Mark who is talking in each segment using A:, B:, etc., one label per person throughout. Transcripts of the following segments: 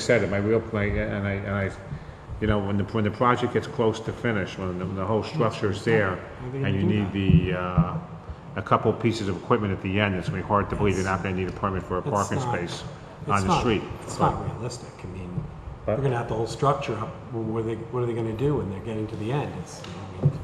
A: said it, my real, my, and I, and I, you know, when the, when the project gets close to finish, when the, when the whole structure's there, and you need the, uh, a couple pieces of equipment at the end, it's gonna be hard to believe you're not gonna need a permit for a
B: It's
A: parking
B: not-
A: space
B: it's
A: on the
B: not-
A: street.
B: It's not realistic, I mean, we're
A: But-
B: gonna have the whole structure up, Well, what are they, what are they gonna do when they're getting to the end? It's, I mean,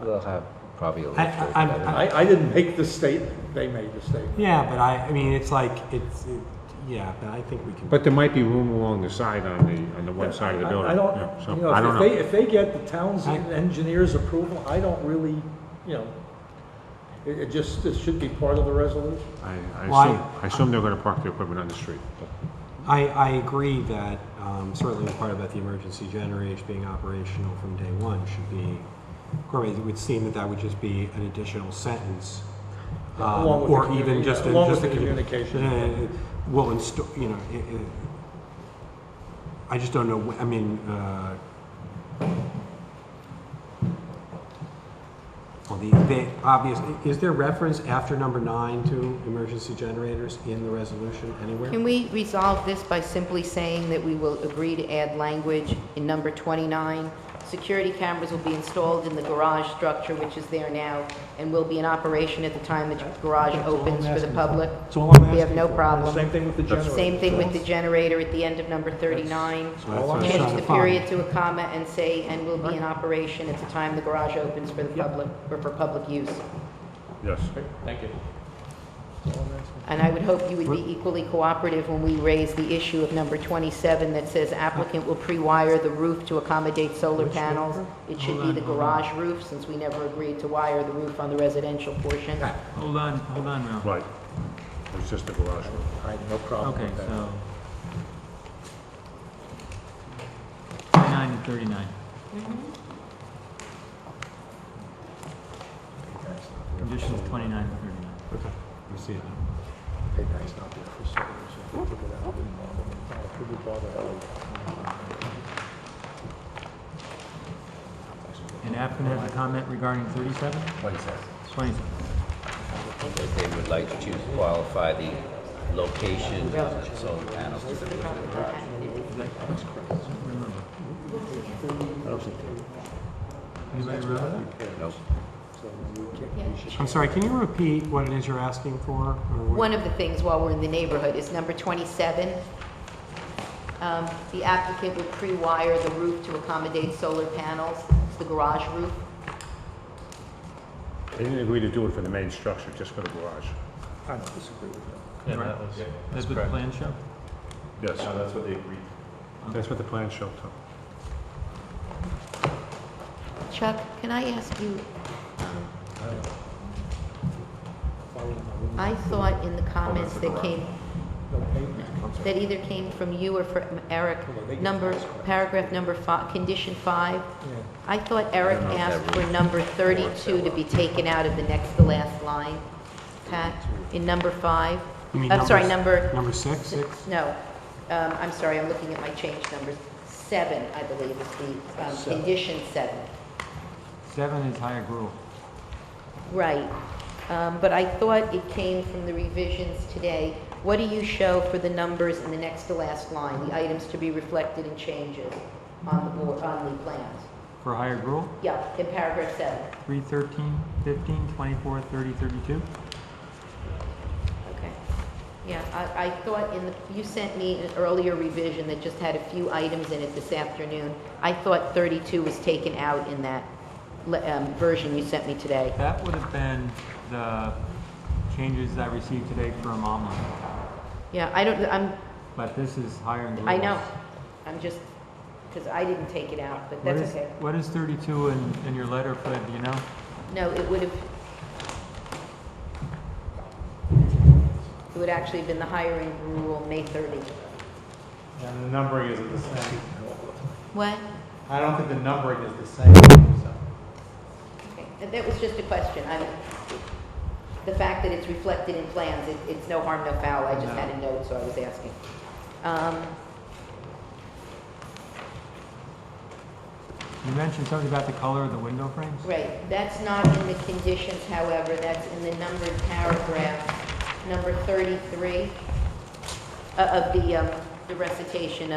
C: They'll have probably a lift
B: I-
C: or
B: I-
C: whatever.
B: I-
D: I, I didn't make the statement, they made the statement.
B: yeah, but I, I mean, it's like, it's, it- yeah, but I think we can.
A: But there might be room along the side on the, on the one side of the
D: I-
A: building.
D: I don't,
A: yeah,
D: you
A: so, I
D: know,
A: don't
D: if
A: know.
D: they, if they get the town's
B: I-
D: engineer's approval, I don't really, you know, it, it just, it should be part of the resolution.
A: I,
B: Well, I-
A: I assume, I assume they're gonna park the equipment on the street.
B: I, I agree that um, certainly the part about the emergency generators being operational from day one should be incorporated. It would seem that that would just be an additional sentence. um,
D: Along with the
B: Or
D: communi-
B: even just. a-
D: along
B: just
D: with
B: a
D: the
B: commu-
D: communication.
B: Uh, Well, and, sto- you know, it- it- I just don't know, wh- I mean, uh, well, the, the obvious, is there reference after number nine to emergency generators in the resolution anywhere?
E: Can we resolve this by simply saying that we will agree to add language in number 29? Security cameras will be installed in the garage structure, which is there now, and will be in operation at the time the garage
B: That's all I'm
E: opens for the
B: asking for.
E: public?
B: That's all I'm
E: We have
B: asking
E: no
B: for.
E: problem.
D: Same thing with the generator.
E: Um, Same thing with the generator at the end of number 39.
B: So that's what I'm trying
E: Change
B: to
E: the
B: find.
E: period to a comma and say, and will be in operation at the time the garage opens for the public, or for public use.
A: Yes.
E: And I would hope you would be equally cooperative when we raise the issue of number 27 that says applicant will pre-wire the roof to accommodate solar panels. It should be the garage roof, since we never agreed to wire the roof on the residential portion.
F: Hold on, hold on, Ralph.
A: Right. It's just the garage.
D: I had no problem
F: Okay,
D: with that.
F: so. 29 and 39. Conditions 29 and 39.
B: Okay, I see it now.
D: Hey, that's not there for sale, so I figured I wouldn't bother them. I figured bother them.
F: And applicant has a comment regarding 37?
C: What is that?
F: 27.
C: That they would like to qualify the location of the solar panels to the
F: Remember. Anybody remember that?
C: Nope.
B: I'm sorry, can you repeat what it is you're asking for? or what-
E: One of the things while we're in the neighborhood is number 27. Um, The applicant would pre-wire the roof to accommodate solar panels, It's the garage roof.
A: They didn't agree to do it for the main structure, just for the garage.
D: I don't disagree with that.
F: Yeah, that was. That's what the plan show?
A: Yes. that's what they agreed. That's what the plan showed, Tom.
E: Chuck, can I ask you, um, I thought in the comments that came
D: No pavement.
E: that either came from you or from Eric,
D: on, they get
E: number,
D: the highest one.
E: paragraph number five, condition five.
D: Yeah.
E: I thought Eric
C: know if that
E: asked for number thirty-two to be taken out of the next to last line, Pat, in number five.
B: You mean
E: I'm sorry,
B: numbers-
E: number,
B: Number six? Six.
E: no, um, I'm sorry, I'm looking at my change numbers. Seven, I believe, is the, um, condition seven.
F: Seven is higher growth.
E: Right, um, but I thought it came from the revisions today. What do you show for the numbers in the next to last line, the items to be reflected and changes on the board, on the plans?
F: For higher growth,
E: Yeah, in paragraph seven,
F: 3, 13, 15, 24, 30, 32.
E: okay. Yeah, I, I thought in the, you sent me an earlier revision that just had a few items in it this afternoon. I thought thirty-two was taken out in that, le- um, version you sent me today.
F: That would have been the changes I received today from Alma,
E: Yeah, I don't, I'm,
F: but this is higher in growth.
E: I know, I'm just, because I didn't take it out, but
F: What
E: that's
F: is,
E: okay.
F: what is 32 in, in your letter, Fred, do you know?
E: No, it would have, it would actually have been the hiring rule, May 30.
G: And the numbering isn't the same.
E: What?
G: I don't think the numbering is the same. so.
E: Okay, that- That was just a question. I'm, the fact that it's reflected in plans, it- it's no harm, no foul. I just had a note, so I was asking. Um,
F: You mentioned something about the color of the window frames?
E: Right, that's not in the conditions, however, that's in the numbered paragraph, number 33 uh, of the um, the recitation